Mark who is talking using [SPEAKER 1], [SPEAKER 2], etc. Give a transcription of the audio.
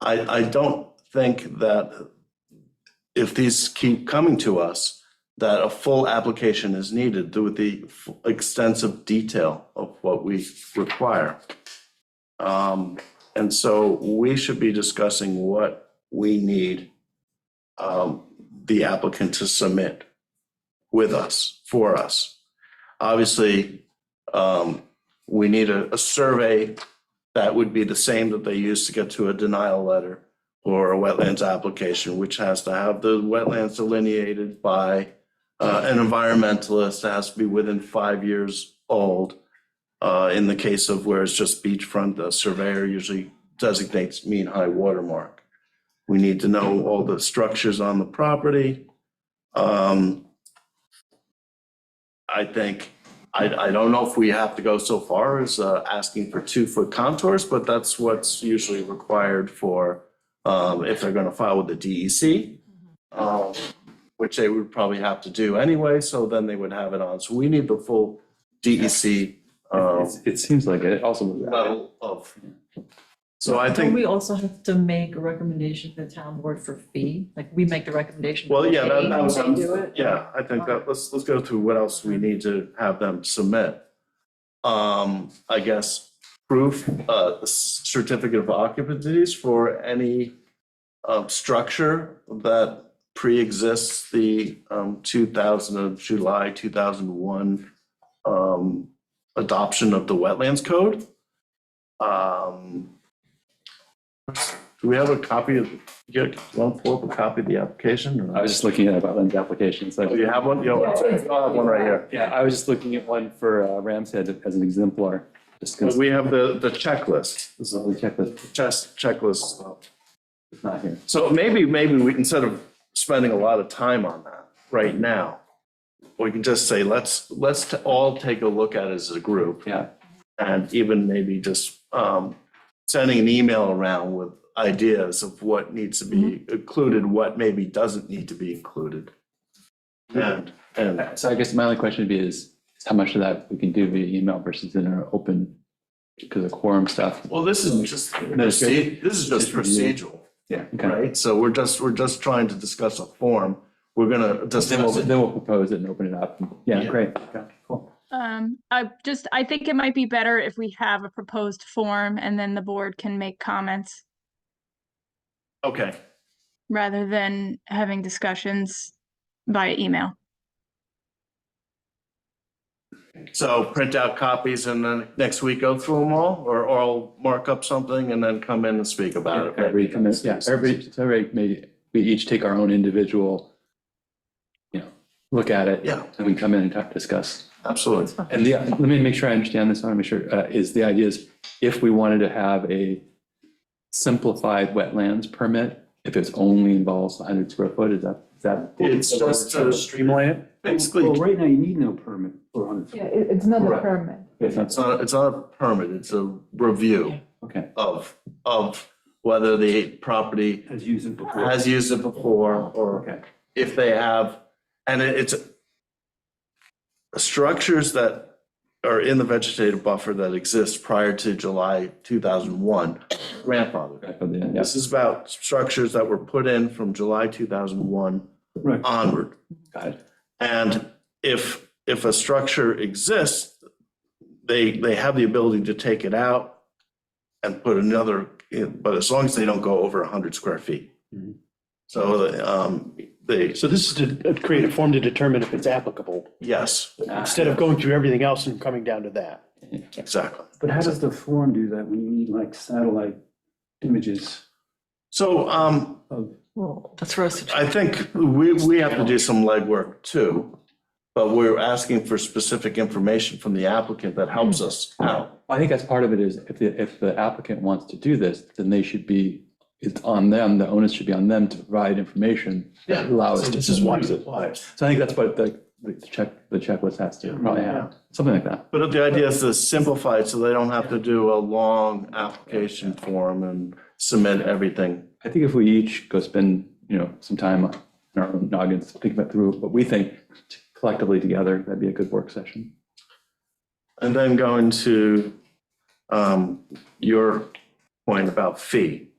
[SPEAKER 1] I, I don't think that if these keep coming to us, that a full application is needed to with the f- extensive detail of what we require. Um, and so we should be discussing what we need um, the applicant to submit with us, for us. Obviously, um, we need a, a survey that would be the same that they use to get to a denial letter or a wetlands application, which has to have the wetlands delineated by uh, an environmentalist, It has to be within five years old. Uh, In the case of where it's just beachfront, the surveyor usually designates mean high watermark. We need to know all the structures on the property. Um, I think I, I don't know if we have to go so far as uh, asking for two-foot contours, but that's what's usually required for um, if they're going to file with the DEC, um, which they would probably have to do anyway, so then they would have it on. So we need the full E DEC um,
[SPEAKER 2] It's- It seems like it also,
[SPEAKER 1] level of. So I
[SPEAKER 3] Don't
[SPEAKER 1] think,
[SPEAKER 3] we also have to make a recommendation to the town board for fee? Like, we make the recommendation.
[SPEAKER 1] well,
[SPEAKER 3] for
[SPEAKER 1] yeah, that
[SPEAKER 3] fee,
[SPEAKER 1] that was,
[SPEAKER 3] they do it?
[SPEAKER 1] yeah, I think that, let's, let's go through what else we need to have them submit. um, I guess, proof, uh, certificate of occupancies for any um, structure that pre-exists the, um, two thousand of July, two thousand one, um, adoption of the wetlands code. Um, do we have a copy of, you want to pull up a copy of the application? or
[SPEAKER 2] I
[SPEAKER 1] not?
[SPEAKER 2] was just looking at about lens applications.
[SPEAKER 1] Do Oh, you have one? You don't- I have one right here.
[SPEAKER 2] Yeah, I was just looking at one for uh, Ram's Head as an exemplar. Just because
[SPEAKER 1] We have the, the checklist.
[SPEAKER 2] this is all the checklist,
[SPEAKER 1] Chest checklist stuff.
[SPEAKER 2] it's not here.
[SPEAKER 1] So maybe, maybe we, instead of spending a lot of time on that right now, we can just say, let's, let's t- all take a look at it as a group
[SPEAKER 2] Yeah,
[SPEAKER 1] and even maybe just um, sending an email around with ideas of what needs to be included, what maybe doesn't need to be included. And, and
[SPEAKER 2] Uh, so I guess my only question would be is, is how much of that we can do via email versus in our open, because of quorum stuff?
[SPEAKER 1] well, this is just,
[SPEAKER 2] it's
[SPEAKER 1] proce- this is just procedural,
[SPEAKER 2] Yeah. Okay.
[SPEAKER 1] right? So we're just, we're just trying to discuss a form. We're gonna
[SPEAKER 2] Then we'll,
[SPEAKER 1] discuss it.
[SPEAKER 2] then we'll propose it and open it up. Yeah,
[SPEAKER 1] Yeah.
[SPEAKER 2] great. Okay, Cool.
[SPEAKER 4] Um, I just, I think it might be better if we have a proposed form and then the board can make comments
[SPEAKER 1] Okay.
[SPEAKER 4] rather than having discussions via email.
[SPEAKER 1] So print out copies and then next week go through them all, or or I'll mark up something and then come in and speak about it.
[SPEAKER 2] Everybody come in, yeah, everybody, so everybody may, we each take our own individual, you know, look at it.
[SPEAKER 1] Yeah.
[SPEAKER 2] And we come in and talk, discuss.
[SPEAKER 1] Absolutely.
[SPEAKER 2] And the, let me make sure I understand this, I want to make sure, uh, is the idea is if we wanted to have a simplified wetlands permit, if it's only involves hundred square foot, is that, is that?
[SPEAKER 1] It's just to
[SPEAKER 5] Streamline it?
[SPEAKER 1] Basically,
[SPEAKER 5] Well, right now, you need no permit for hundred
[SPEAKER 6] Yeah,
[SPEAKER 5] feet.
[SPEAKER 6] it, it's not a
[SPEAKER 2] Correct.
[SPEAKER 6] permit.
[SPEAKER 2] It's not-
[SPEAKER 1] it's not, it's not a permit, it's a review
[SPEAKER 2] Okay,
[SPEAKER 1] of, of whether the property
[SPEAKER 5] As used it before.
[SPEAKER 1] has used it before, or
[SPEAKER 2] okay,
[SPEAKER 1] if they have, and it- it's structures that are in the vegetative buffer that exist prior to July 2001 grandfathered.
[SPEAKER 2] back on the end, yeah.
[SPEAKER 1] This is about structures that were put in from July 2001
[SPEAKER 5] Right.
[SPEAKER 1] onward.
[SPEAKER 2] got it,
[SPEAKER 1] And if, if a structure exists, they, they have the ability to take it out and put another, in, but as long as they don't go over 100 square feet.
[SPEAKER 2] Mm-hmm.
[SPEAKER 5] Mhm.
[SPEAKER 1] So um, they,
[SPEAKER 7] So this is to create a form to determine if it's applicable,
[SPEAKER 1] yes,
[SPEAKER 7] instead of going through everything else and coming down to that.
[SPEAKER 1] exactly.
[SPEAKER 5] But how does the form do that when you need like satellite images?
[SPEAKER 1] So um,
[SPEAKER 3] Well, that's for us to.
[SPEAKER 1] I think we, we have to do some legwork too, but we're asking for specific information from the applicant that helps us out.
[SPEAKER 2] I think that's part of it is if the, if the applicant wants to do this, then they should be, it's on them, the onus should be on them to provide information that allows us to.
[SPEAKER 1] applies.
[SPEAKER 2] So I think that's what the, the check, the checklist has to probably have, something like that.
[SPEAKER 1] But the idea is to simplify it so they don't have to do a long application form and submit everything.
[SPEAKER 2] I think if we each go spend, you know, some time on our own noggins, thinking about through what we think collectively together, that'd be a good work session.
[SPEAKER 1] And then going to um, your point about fee.